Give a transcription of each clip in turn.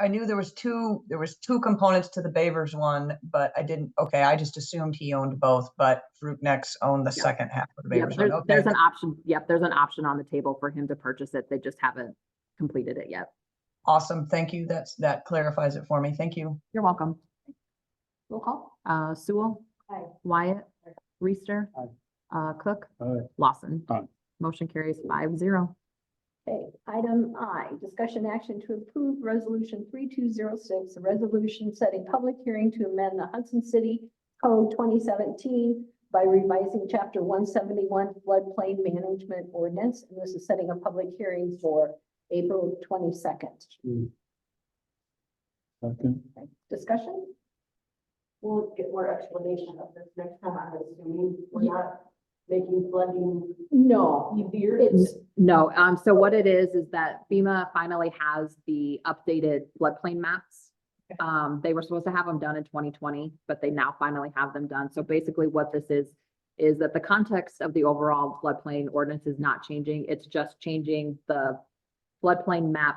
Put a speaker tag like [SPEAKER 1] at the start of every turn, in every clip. [SPEAKER 1] I knew there was two, there was two components to the Bavers one, but I didn't, okay, I just assumed he owned both, but Fruit Nex owned the
[SPEAKER 2] Yeah.
[SPEAKER 1] second half of the
[SPEAKER 2] Yep,
[SPEAKER 1] Bavers one,
[SPEAKER 2] there's,
[SPEAKER 1] okay.
[SPEAKER 2] there's an option, yep, there's an option on the table for him to purchase it. They just haven't completed it yet.
[SPEAKER 1] Awesome, thank you, that's, that clarifies it for me, thank you.
[SPEAKER 2] You're welcome. Roll call. Uh, Sewell.
[SPEAKER 3] Aye.
[SPEAKER 2] Wyatt. Reister.
[SPEAKER 4] Aye.
[SPEAKER 2] Uh, Cook.
[SPEAKER 4] Aye.
[SPEAKER 2] Lawson.
[SPEAKER 4] Aye.
[SPEAKER 2] Motion carries five zero.
[SPEAKER 3] Okay, item I, discussion action to approve resolution three two zero six, a resolution setting public hearing to amend the Hudson City Code twenty seventeen by revising chapter one seventy-one floodplain management ordinance, and this is setting a public hearing for April twenty-second.
[SPEAKER 4] Second,
[SPEAKER 3] Discussion?
[SPEAKER 5] We'll get more explanation of this next time, I'm assuming,
[SPEAKER 2] Ye-
[SPEAKER 5] we're not making flooding
[SPEAKER 3] No.
[SPEAKER 5] easier.
[SPEAKER 3] It's,
[SPEAKER 2] No, um, so what it is, is that FEMA finally has the updated floodplain maps.
[SPEAKER 3] Okay.
[SPEAKER 2] Um, they were supposed to have them done in twenty twenty, but they now finally have them done. So basically what this is, is that the context of the overall floodplain ordinance is not changing. It's just changing the floodplain map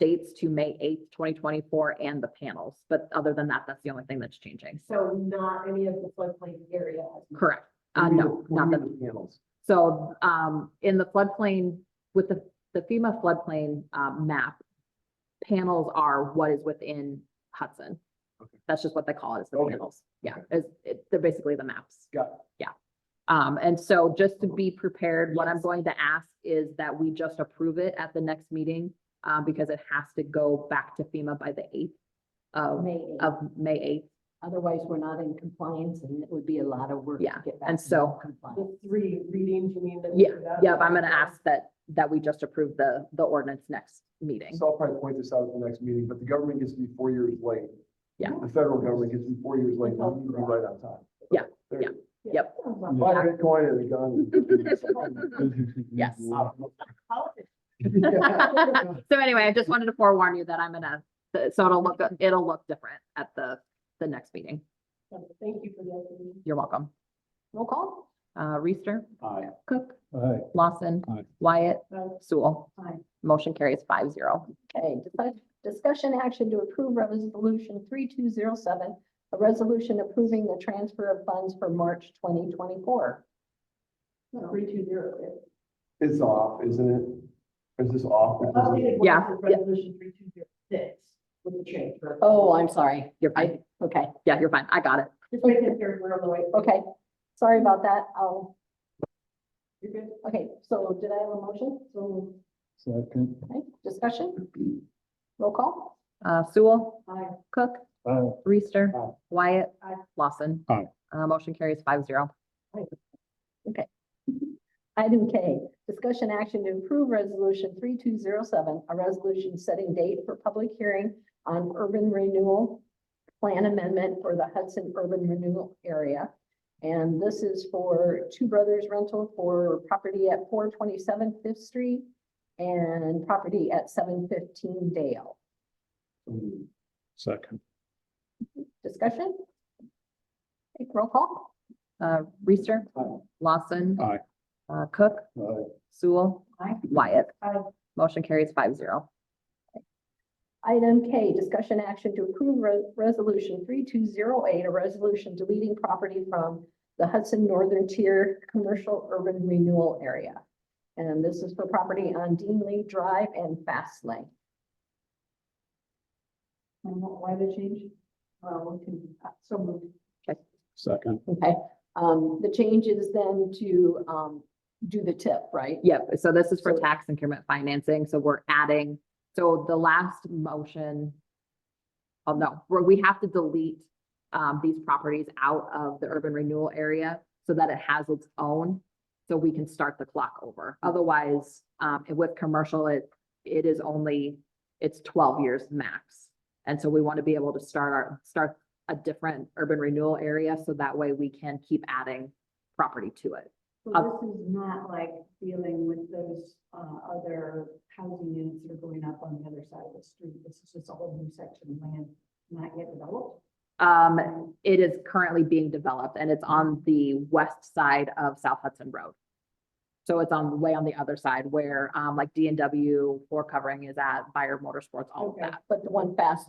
[SPEAKER 2] dates to May eighth, twenty twenty-four and the panels. But other than that, that's the only thing that's changing.
[SPEAKER 5] So not any of the floodplain area.
[SPEAKER 2] Correct. Uh, no, not the
[SPEAKER 4] panels.
[SPEAKER 2] so, um, in the floodplain, with the, the FEMA floodplain, um, map, panels are what is within Hudson.
[SPEAKER 4] Okay.
[SPEAKER 2] That's just what they call it, is the
[SPEAKER 4] Okay.
[SPEAKER 2] panels. Yeah, is, it, they're basically the maps.
[SPEAKER 4] Got it.
[SPEAKER 2] Yeah. Um, and so just to be prepared, what I'm
[SPEAKER 5] Yes.
[SPEAKER 2] going to ask is that we just approve it at the next meeting, um, because it has to go back to FEMA by the eighth of,
[SPEAKER 3] May
[SPEAKER 2] of May eighth.
[SPEAKER 3] otherwise we're not in compliance and it would be a lot of work
[SPEAKER 2] to Yeah, get back and to so-
[SPEAKER 3] compliance.
[SPEAKER 5] The three readings, you mean? that-
[SPEAKER 2] Yeah, Yep, I'm gonna ask that, that we just approve the, the ordinance next meeting.
[SPEAKER 4] So I'll probably point this out at the next meeting, but the government gets to be four years late.
[SPEAKER 2] Yeah.
[SPEAKER 4] The federal government gets to be four years late, we need to be right on time.
[SPEAKER 2] Yeah,
[SPEAKER 4] There you
[SPEAKER 2] Yep.
[SPEAKER 4] go. Buy Bitcoin and a gun.
[SPEAKER 2] Yes.
[SPEAKER 4] Yeah.
[SPEAKER 2] So anyway, I just wanted to forewarn you that I'm gonna, so it'll look, it'll look different at the, the next meeting.
[SPEAKER 5] Thank you for that.
[SPEAKER 2] You're welcome.
[SPEAKER 3] Roll call?
[SPEAKER 2] Uh, Reister,
[SPEAKER 4] Aye.
[SPEAKER 2] Cook,
[SPEAKER 4] Aye.
[SPEAKER 2] Lawson,
[SPEAKER 4] Aye.
[SPEAKER 2] Wyatt,
[SPEAKER 3] Aye.
[SPEAKER 2] Sewell.
[SPEAKER 3] Aye.
[SPEAKER 2] Motion carries five zero.
[SPEAKER 3] Okay, dis- discussion action to approve resolution three two zero seven, a resolution approving the transfer of funds for March twenty twenty-four.
[SPEAKER 5] Three two zero.
[SPEAKER 4] It's off, isn't it? Is this off? because of-
[SPEAKER 2] Yeah, yeah.
[SPEAKER 5] Resolution three two zero six with the change. right?
[SPEAKER 3] Oh, I'm sorry.
[SPEAKER 2] You're fine.
[SPEAKER 3] I, okay,
[SPEAKER 2] Yeah, you're fine. I got it.
[SPEAKER 5] Just making sure we're on the way.
[SPEAKER 3] okay. Sorry about that. I'll,
[SPEAKER 5] You're good.
[SPEAKER 3] okay, so did I have a motion?
[SPEAKER 5] So,
[SPEAKER 4] Second.
[SPEAKER 3] Okay, discussion? Roll call?
[SPEAKER 2] Uh, Sewell,
[SPEAKER 5] I,
[SPEAKER 2] Cook,
[SPEAKER 4] Aye.
[SPEAKER 2] Reister,
[SPEAKER 4] Aye.
[SPEAKER 2] Wyatt,
[SPEAKER 5] Aye.
[SPEAKER 2] Lawson.
[SPEAKER 4] Aye.
[SPEAKER 2] Uh, motion carries five zero.
[SPEAKER 3] Item K, discussion action to approve resolution three two zero seven, a resolution setting date for public hearing on urban renewal plan amendment for the Hudson urban renewal area. And this is for Two Brothers Rental for property at 427 Fifth Street and property at seven fifteen Dale.
[SPEAKER 4] Second.
[SPEAKER 3] Discussion? Take roll call?
[SPEAKER 2] Uh, Reister,
[SPEAKER 4] Aye.
[SPEAKER 2] Lawson.
[SPEAKER 4] Aye.
[SPEAKER 2] Uh, Cook,
[SPEAKER 4] Aye.
[SPEAKER 2] Sewell,
[SPEAKER 3] Aye.
[SPEAKER 2] Wyatt.
[SPEAKER 5] Aye.
[SPEAKER 2] Motion carries five zero.
[SPEAKER 3] Item K, discussion action to approve re- resolution three two zero eight, a resolution deleting property from the Hudson Northern Tier Commercial Urban Renewal Area. And this is for property on Dean Lee Drive and Fast Lane.
[SPEAKER 5] and what- Um, why the change? Uh, we can, uh, so moved.
[SPEAKER 4] Second.
[SPEAKER 3] Okay, um, the change is then to, um, do the tip, right?
[SPEAKER 2] Yep, so this is for
[SPEAKER 3] So-
[SPEAKER 2] tax increment financing, so we're adding, so the last motion. Oh, no, where we have to delete um these properties out of the urban renewal area so that it has its own. So we can start the clock over. Otherwise, um and with commercial, it it is only, it's twelve years max. And so we want to be able to start our, start a different urban renewal area, so that way we can keep adding property to it.
[SPEAKER 5] So
[SPEAKER 2] Up.
[SPEAKER 5] this is not like dealing with those, uh, other housing units that are going up on the other side of the street. This is just a whole new section of land not yet developed.
[SPEAKER 2] Um, It is currently being developed and it's on the west side of South Hudson Road. So it's on, way on the other side where, um, like D and W, floor covering is at, Buyer Motorsports, all of
[SPEAKER 5] Okay.
[SPEAKER 2] that.
[SPEAKER 3] but the one fast